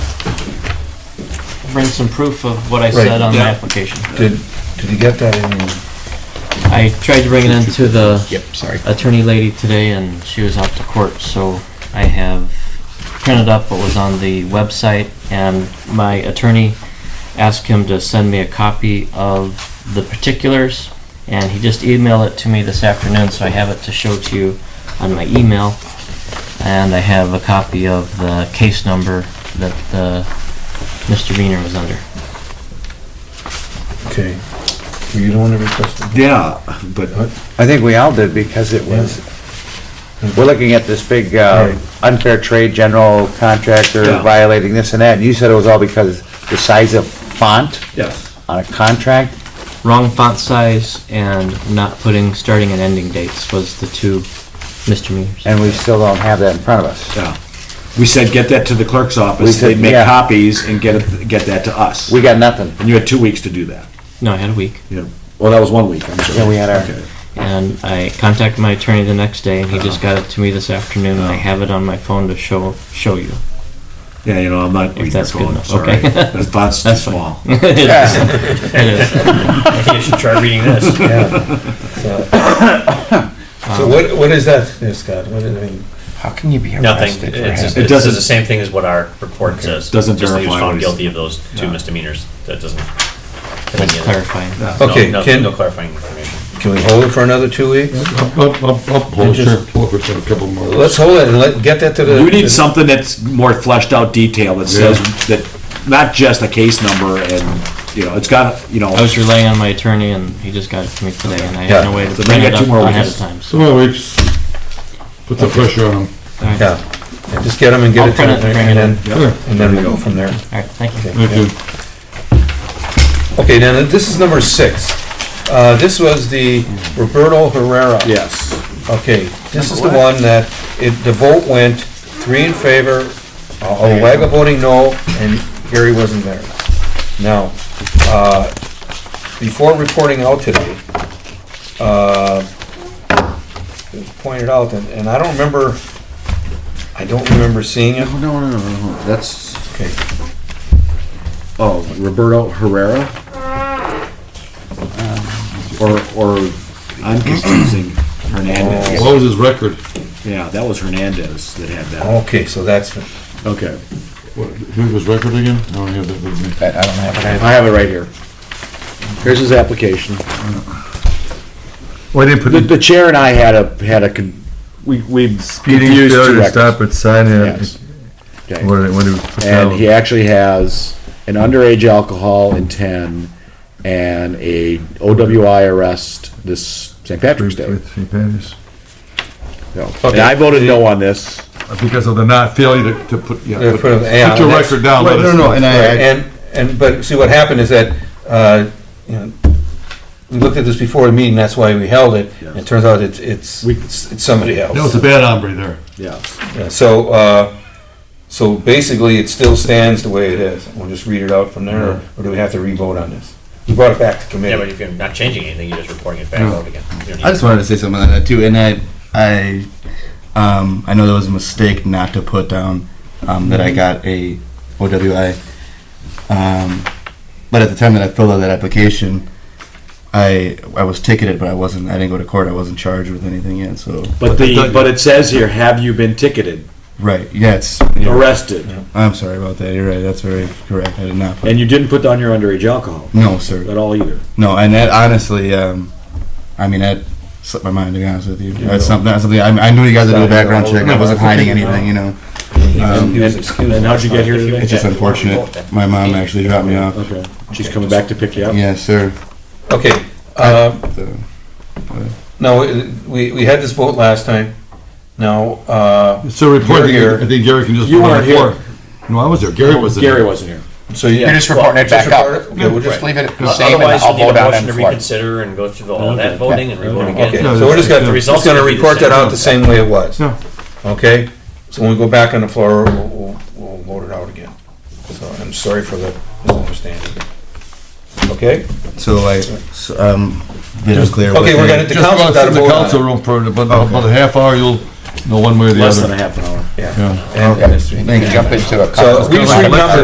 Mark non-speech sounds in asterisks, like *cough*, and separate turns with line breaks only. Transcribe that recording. bring some proof of what I
Right.
said on the
Yeah.
application.
Did, did you get that in?
I tried to bring it into the
Yep, sorry.
attorney lady today, and she was out to court, so I have printed up what was on the website, and my attorney asked him to send me a copy of the particulars, and he just emailed it to me this afternoon, so I have it to show to you on my email. And I have a copy of the case number that the misdemeanor was under.
Okay. Were you the one that requested?
Yeah, but
What?
I think we all did because it was, we're looking at this big uh,
Right.
unfair trade, general contractor
Yeah.
violating this and that, and you said it was all because the size of font
Yes.
on a contract?
Wrong font size and not putting starting and ending dates was the two misdemeanors.
And we still don't have that in front of us.
Yeah. We said, get that to the clerk's
We
office,
said,
they'd make
yeah.
copies and get, it- get that to us.
We got nothing.
And you had two weeks to do that.
No, I had a week.
Yeah. Well, that was one week, I'm sorry.
Yeah, we had our-
Okay.
And I contacted my attorney the next day, and he just got it to me this afternoon,
Oh.
and I have it on my phone to show, show
*laughs*
you.
Yeah, you know, I'm not reading your
that's good
phone,
enough,
sorry.
okay.
That font's too
That's fine.
small.
It is. *laughs* It is.
Maybe I should try reading this.
Yeah. So- So what, what is that, there, Scott? What is, I mean,
How can you be
Nothing.
arrested for
It's,
It
having?
it does
doesn't-
the same thing as what our report says.
Doesn't
Just that he
verify
was
what
found
he's-
guilty of those two misdemeanors. That doesn't.
It's *laughs* clarifying.
No,
Okay,
no-
Ken.
No clarifying information.
can we hold it for another two weeks?
Up, up, up, up,
And
hold
just-
it, hold it for a couple more.
Let's hold it and let, get that to the.
You need something that's more fleshed out detail that says that, not just a case number and, you know, it's got, you know,
I was relying on my attorney, and he just got it to me today, and I
Yeah.
had no way to
So
bring
they
it
got
up
two more
ahead of
weeks.
time. so-
Two more weeks, put the pressure on them.
All right,
Yeah, Yeah, just get them and get
I'll
it to
print it and
them,
bring it
and
in.
then,
Yeah.
and then we go from there.
all right, thank you.
Thank you.
Okay, now, this is number six. Uh, this was the Roberto Herrera.
yes.
Okay, this is the one that, it, the vote went three in favor, Olega voting no, and Gary wasn't there. Now, uh, before reporting out today, uh, it was pointed out, and, and I don't remember, I don't remember seeing it.
No, no, no, no, no, that's,
Okay,
oh, Roberto Herrera? Um, Or, or, I'm *coughs* confusing Hernandez.
What was his record?
Yeah, that was Hernandez that had that.
okay, so that's,
Okay.
What, Who was record again? I don't have that with me.
I I don't have it.
I have it right here. Here's his application.
Why didn't put
The,
the
the chair and I had a, had a, con- we, we
speeding
confused two
failure to
records.
stop at sign
Yes.
in?
Okay.
What, did- what did we put
And
down?
he actually has an underage alcohol in ten and a OWI arrest this St. Patrick's Day.
With St. Patty's.
So, And I voted no on this.
Uh,
Because of the not failure to, to put, yeah.
Yeah,
put-
put it- yeah,
Put your
that's-
record down, Right, let no, us no, know. and
Right,
I,
And, and, but see, what happened is that, uh, you know, we looked at this before the meeting, that's why we held it. and It turns out it's, it's,
We-
it's it's somebody else.
That was a bad hombre there.
Yeah.
Yeah, So, uh, so basically, it still stands the way it is. We'll just read it out from there, or do we have to re-vote on this? You brought it back to
Yeah, but
committee.
if you're not changing anything, you're just reporting it back
Mm.
out again. You don't need
I just wanted to say something on that too, and I, I, um, I know that was a mistake not to put down um, that I got a OWI, um, but at the time that I filled out that application, I I was ticketed, but I wasn't. I didn't go to court. I wasn't charged with anything yet. So
But the, but it says here, have you been ticketed,
right, yeah, it's. yeah.
arrested,
I'm sorry about that. You're right. That's very correct. I did not. Put,
and you didn't put down your underage alcohol
no, sir.
at all either?
No, and that honestly, um, I mean that slipped my mind to be honest with you. That's something. That's something. I, I knew you guys would do a background check. I wasn't hiding anything, you know. Um,
He was excused.
And how'd you get here today?
It's just unfortunate. My mom actually dropped me off.
Okay, she's coming back to pick you up?
Yes, sir.
Okay, uh,
So,
now, uh, we, we had this vote last time. Now, uh,
It's a report,
You're here.
I think Gary can just.
You
put on
weren't
the floor. No, I was there, Gary was there.
Gary wasn't here.
so you.
You're just reporting it
Just
back up.
report it? Okay, we'll just leave it.
Otherwise, you need a motion to reconsider and go through the- all that voting and report
Okay,
again.
No,
so we're just
the
gonna, just
results
gonna
would be the
report that
same.
out the same way it was.
Yeah.
Okay, so when we go back on the floor, we'll, we'll- we'll vote it out again. So I'm sorry for the misunderstanding. Okay?
so like, so, um, it was clear.
Okay, we're gonna, the
Just
council
about sit
got a
in the
vote on
council
it.
room for about, about a half hour, you'll know one way or the
Less
other.
than a half an hour.
Yeah.
Yeah.
And-
Thank you.
So we just renumbered